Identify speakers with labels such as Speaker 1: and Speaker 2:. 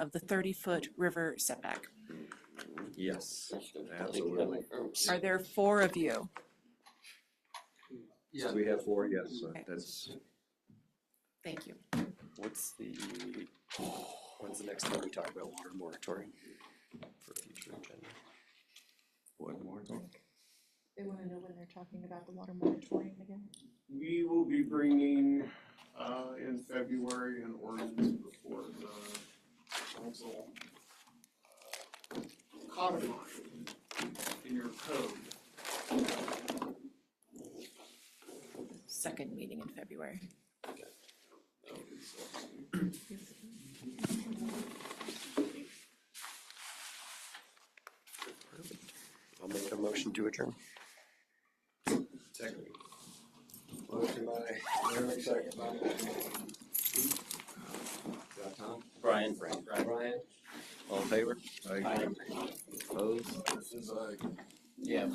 Speaker 1: of the thirty-foot river setback.
Speaker 2: Yes, absolutely.
Speaker 1: Are
Speaker 3: Absolutely.
Speaker 1: there four of you?
Speaker 2: So we have four, yes, so
Speaker 1: Okay.
Speaker 2: that's,
Speaker 1: Thank you.
Speaker 3: What's the, when's the next time we talk about water moratorium for future agenda?
Speaker 2: one more.
Speaker 4: They wanna know when they're talking about the water moratorium again?
Speaker 5: We will be bringing, uh, in February an ordinance before the council. uh, Codifying in your code.
Speaker 1: Second meeting in February.
Speaker 3: I'll make a motion to adjourn.
Speaker 2: Second.
Speaker 3: Motion by Eric, second by. Brian. Brian. Brian. All in favor?
Speaker 2: I
Speaker 3: Aye.
Speaker 2: Opposed?
Speaker 3: Yeah.